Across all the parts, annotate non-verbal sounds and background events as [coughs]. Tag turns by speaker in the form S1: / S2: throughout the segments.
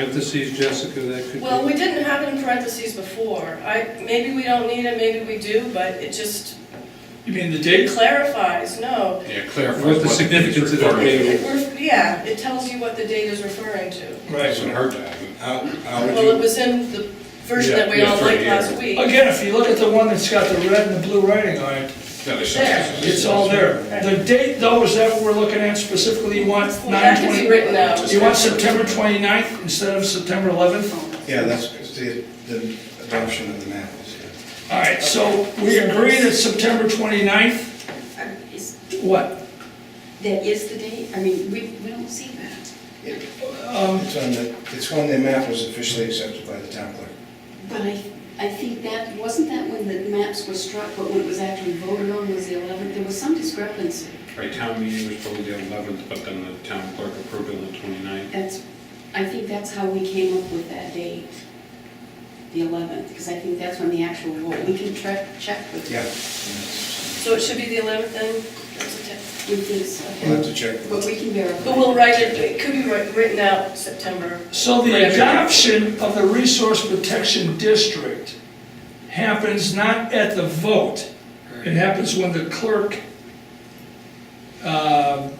S1: parentheses, Jessica, that could
S2: Well, we
S1: be?
S2: didn't have it in parentheses before. I, maybe we don't need it, maybe we do, but it just
S3: You mean the date?
S2: clarifies, no.
S4: Yeah, clarify.
S1: What the
S4: date's
S1: significance of that
S4: referring to.
S1: date?
S2: It ref- Yeah, it tells you what the date is referring to.
S4: Doesn't hurt to have it.
S5: How, how would
S2: Well, it
S5: you,
S2: was in the version that we
S4: Yeah,
S2: all
S4: yeah,
S2: liked
S4: right
S2: last
S4: here.
S2: week.
S3: Again, if you look at the one that's got the red and the blue writing on it,
S4: No, it's-
S2: There.
S3: it's all there. The date though, is that what we're looking at specifically, you want
S2: Well,
S3: nine
S2: That could be
S3: twenty?
S2: written out.
S3: You want September 29th instead of September eleventh?
S5: yeah, that's the, the adoption of the map. is here.
S3: All right, so we agree that September 29th,
S6: Uh, Is,
S3: what?
S6: that is the date? I mean, we, we don't see that.
S5: It's on the, it's when the map was officially accepted by the town clerk.
S6: But I, I think that, wasn't that when the maps were struck, but when it was actually voted on was the 11th? There was some discrepancy.
S4: Right, town meeting was probably the eleventh, but then the town clerk approved it on the twenty-ninth.
S6: That's, I think that's how we came up with that date, the 11th, because I think that's when the actual vote, we can check, check with.
S5: Yeah.
S2: So it should be the 11th then? That's a te-
S6: With this, okay.
S5: We'll have to check.
S6: But we can verify.
S2: But we'll write it, it could be wri- written out September.
S3: So the
S2: Whatever.
S3: adoption of the Resource Protection District happens not at the vote. It happens when the clerk, um,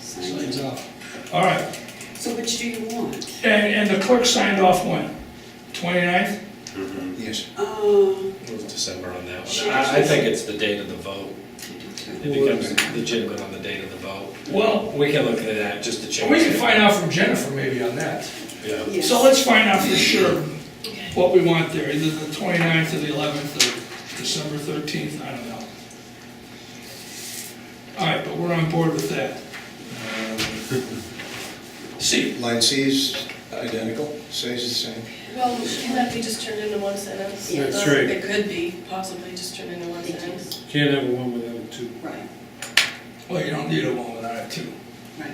S6: Sign
S5: uh,
S6: it.
S3: all right,
S6: So which do you want?
S3: and, and the clerk signed off when? 29th?
S5: Yes.
S6: Um,
S7: It was December on that
S6: Sure.
S7: one. I, I think it's the date of the vote. It becomes legitimate on the date of the vote.
S3: Well,
S7: We can look into that just to change.
S3: we can
S7: it.
S3: find out from Jennifer maybe on that.
S7: Yeah.
S6: yes.
S3: So let's find out for sure what we want there, either the 29th or the 11th or December 13th, I don't know. All right, but we're on board with that. See,
S5: Line C is identical, stays the same.
S2: Well, can that be just turned into one sentence? Uh,
S6: Yeah.
S1: That's right.
S2: It could be possibly just turned into one
S6: Thank you.
S2: sentence.
S1: Can't have one without a two.
S6: Right,
S3: well, you don't need a one without a two.
S6: right.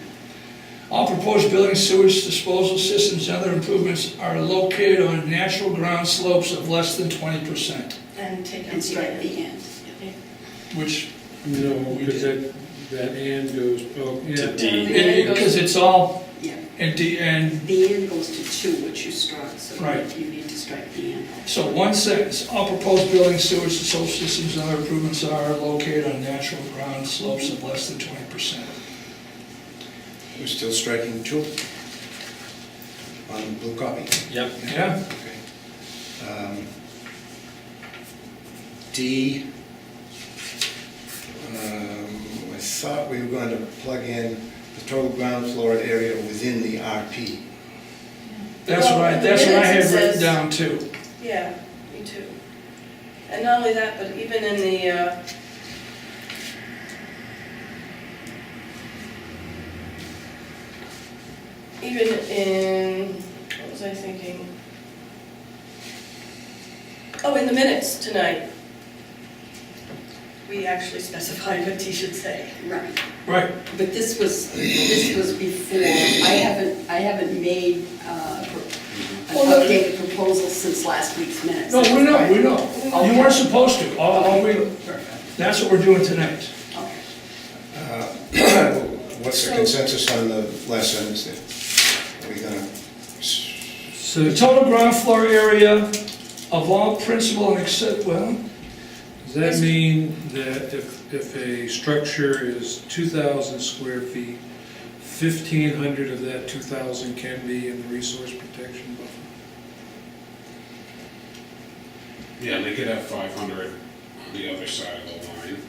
S3: All proposed building sewage disposal systems and other improvements are located on natural ground slopes of less than 20%,
S2: And take out
S6: And
S2: the
S6: strike
S2: end.
S6: the end.
S3: which,
S1: No,
S3: We
S1: because that, that and goes, oh,
S7: To
S1: yeah.
S7: D.
S3: because it's all,
S6: Yeah,
S3: and, D- and
S6: the end goes to two, which you struck, so
S3: Right.
S6: you need to strike the end.
S3: So one sentence, all proposed buildings, sewage, and social systems and other improvements are located on natural ground slopes of less than twenty percent.
S5: We're still striking two on the blue copy.
S7: Yep.
S3: Yeah?
S5: Okay. Um, D, um, I thought we were going to plug in the total ground floor area within the RP.
S3: That's what I,
S2: Well, the
S3: that's what I
S2: minutes it
S3: had written
S2: says-
S3: down too.
S2: Yeah, me too. And not only that, but even in the, uh, even in, what was I thinking? Oh, in the minutes tonight, we actually specified what he should say.
S6: Right.
S3: Right,
S6: But this was, this was before, I haven't, I haven't made uh, pro- an
S3: Well, no.
S6: updated proposal since last week's minutes.
S3: no, we know, we know. You weren't supposed to, all, all we, that's what we're doing tonight.
S6: Okay.
S5: [coughs] What's the consensus on the last sentence there? Are we gonna, s-
S3: The
S1: So,
S3: total ground floor area of all principal and except, well,
S1: does that mean that if, if a structure is two thousand square feet, fifteen hundred of that two thousand can be in the resource protection buffer?
S4: Yeah, and they could have five hundred on the other side of the line.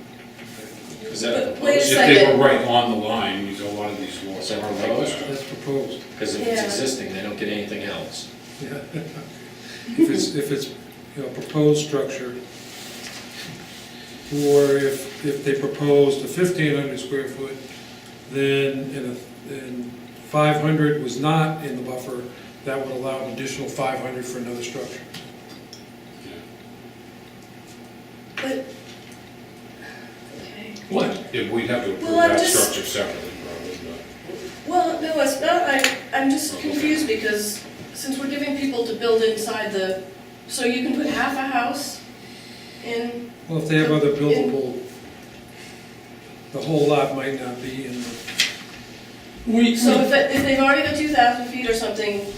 S7: Is that
S2: But wait a
S7: proposed?
S4: If they
S2: second.
S4: were right on the line, because a lot of these laws
S7: Is that
S4: are like that.
S1: That's proposed,
S7: Because if it's
S2: Yeah.
S7: existing, they don't get anything else.
S1: yeah. If it's, if it's, you know, proposed structure, or if, if they proposed a fifteen hundred square foot, then, and, a- and five hundred was not in the buffer, that would allow an additional five hundred for another structure.
S2: But, okay.
S3: what?
S4: If we'd have to approve
S2: Well, I'm
S4: that
S2: just-
S4: structure separately, probably, but.
S2: Well, no, it's not, I, I'm just confused because since we're giving people to build inside the, so you can put half a house in,
S1: Well, if they have other buildable, the whole lot might not be in the,
S3: We,
S2: so if, it- if they've already got two thousand feet or something,